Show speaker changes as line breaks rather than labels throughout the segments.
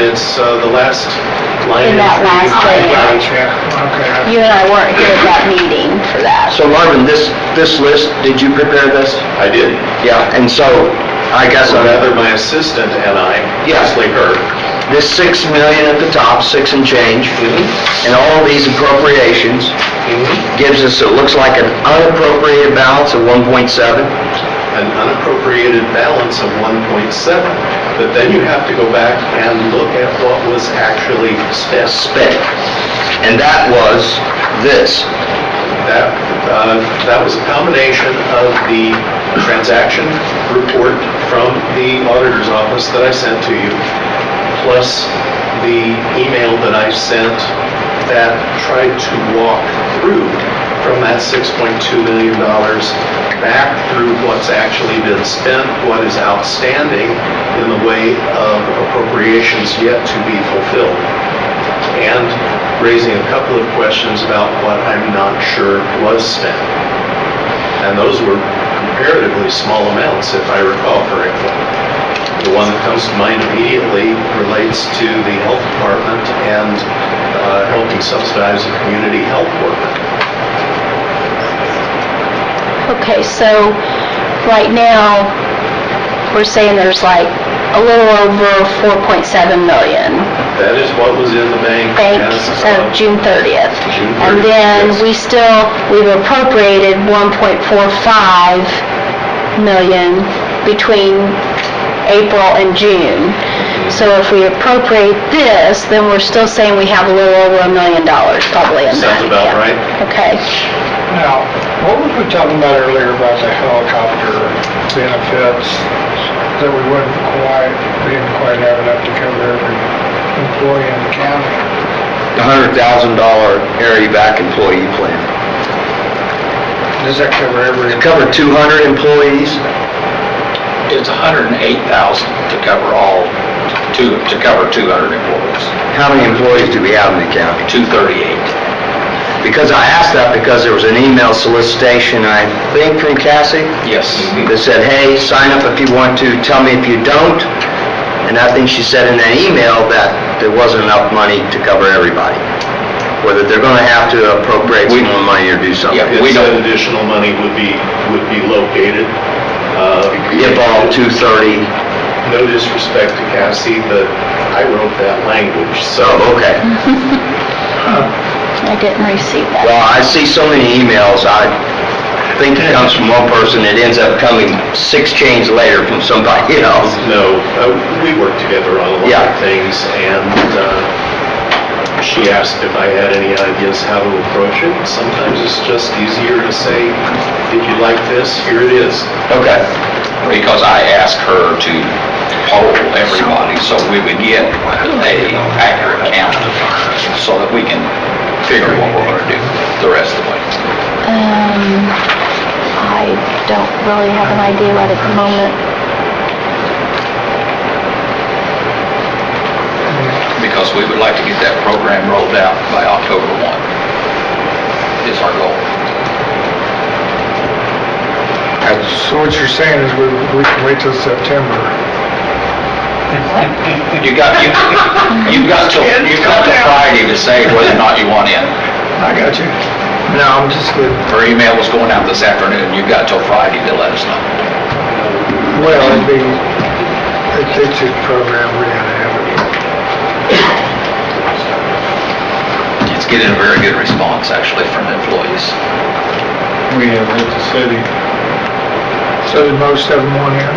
it's uh, the last line.
In that last thing.
Okay.
You and I weren't here at that meeting for that.
So Marvin, this, this list, did you prepare this?
I did.
Yeah, and so I guess I'm-
Rather, my assistant and I,
Yeah.
Leslie Herb.
this six million at the top, six and change, and all these appropriations gives us, it looks like an unappropriated balance of one point seven.
An unappropriated balance of 1.7. But then you have to go back and look at what was actually spent.
spent. And that was this.
That, uh, that was a combination of the transaction report from the auditor's office that I sent to you, plus the email that I sent that tried to walk through from that $6.2 million back through what's actually been spent, what is outstanding in the way of appropriations yet to be fulfilled and raising a couple of questions about what I'm not sure was spent. And those were comparatively small amounts, if I recall correctly. The one that comes to mind immediately relates to the health department and uh, helping subsidize a community health worker.
Okay, so right now, we're saying there's like a little over 4.7 million
That is what was in the bank uh,
bank
as
of
of
June 30th.
June 30th,
And then
yes.
we still, we've appropriated 1.45 million between April and June. So if we appropriate this, then we're still saying we have a little over a million dollars probably in that.
Sounds about
yeah.
right.
Okay.
Now, what was we talking about earlier about the helicopter benefits that we wouldn't quite, we didn't quite have enough to cover every employee in the county?
The hundred thousand dollar area back employee plan.
Does that cover every?
It covered two hundred employees?
It's 108,000 to cover all, to, to cover 200 employees,
How many employees do we have in the county?
238.
Because I asked that because there was an email solicitation, I think from Cassie,
Yes.
that said, hey, sign up if you want to, tell me if you don't. And I think she said in that email that there wasn't enough money to cover everybody. Whether they're gonna have to appropriate some more money or do something.
Yeah,
It
we
said
don't-
additional money would be, would be located. uh,
If all 230,
No disrespect to Cassie, but I wrote that language, so.
so, oh, okay.
I didn't receive that.
Well, I see so many emails, I think it comes from one person, it ends up coming six chains later from somebody else.
No, uh, we work together on a lot
Yeah.
of things, and uh, she asked if I had any ideas how to approach it. Sometimes it's just easier to say, "Did you like this? Here it is."
Okay,
Because I asked her to poll everybody, so we would get a accurate count, so that we can figure what we're gonna do the rest of the way.
Um, I don't really have an idea right at the moment.
Because we would like to get that program rolled out by October 1, is our goal.
So what you're saying is we, we can wait till September?
You got, you, you've got till, you've got till Friday to say whether or not you want in.
I got you. No, I'm just good.
Her email was going out this afternoon, you've got till Friday to let us know.
Well, it'd be, it- it's a program we're gonna have.
It's getting a very good response, actually, from employees.
We have at the city. So did most of them want in?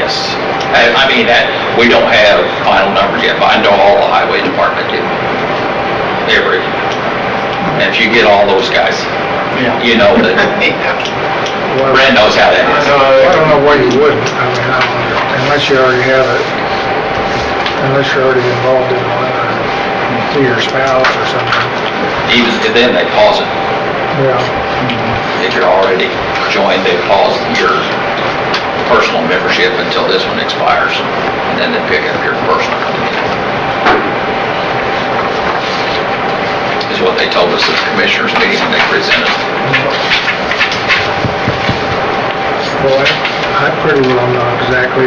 Yes. I, I mean, that, we don't have final numbers yet, but I know all the highway department did. Every, and if you get all those guys, you know that,
Well-
Brad knows how that is.
I don't know why you wouldn't, I mean, I don't- unless you already have it, unless you're already involved in one, or through your spouse or something,
Even if then, they pause it.
yeah.
If you're already joined, they pause your personal membership until this one expires, and then they pick up your personal. Is what they told us at the commissioners meeting when they presented.
Well, I I pretty well know exactly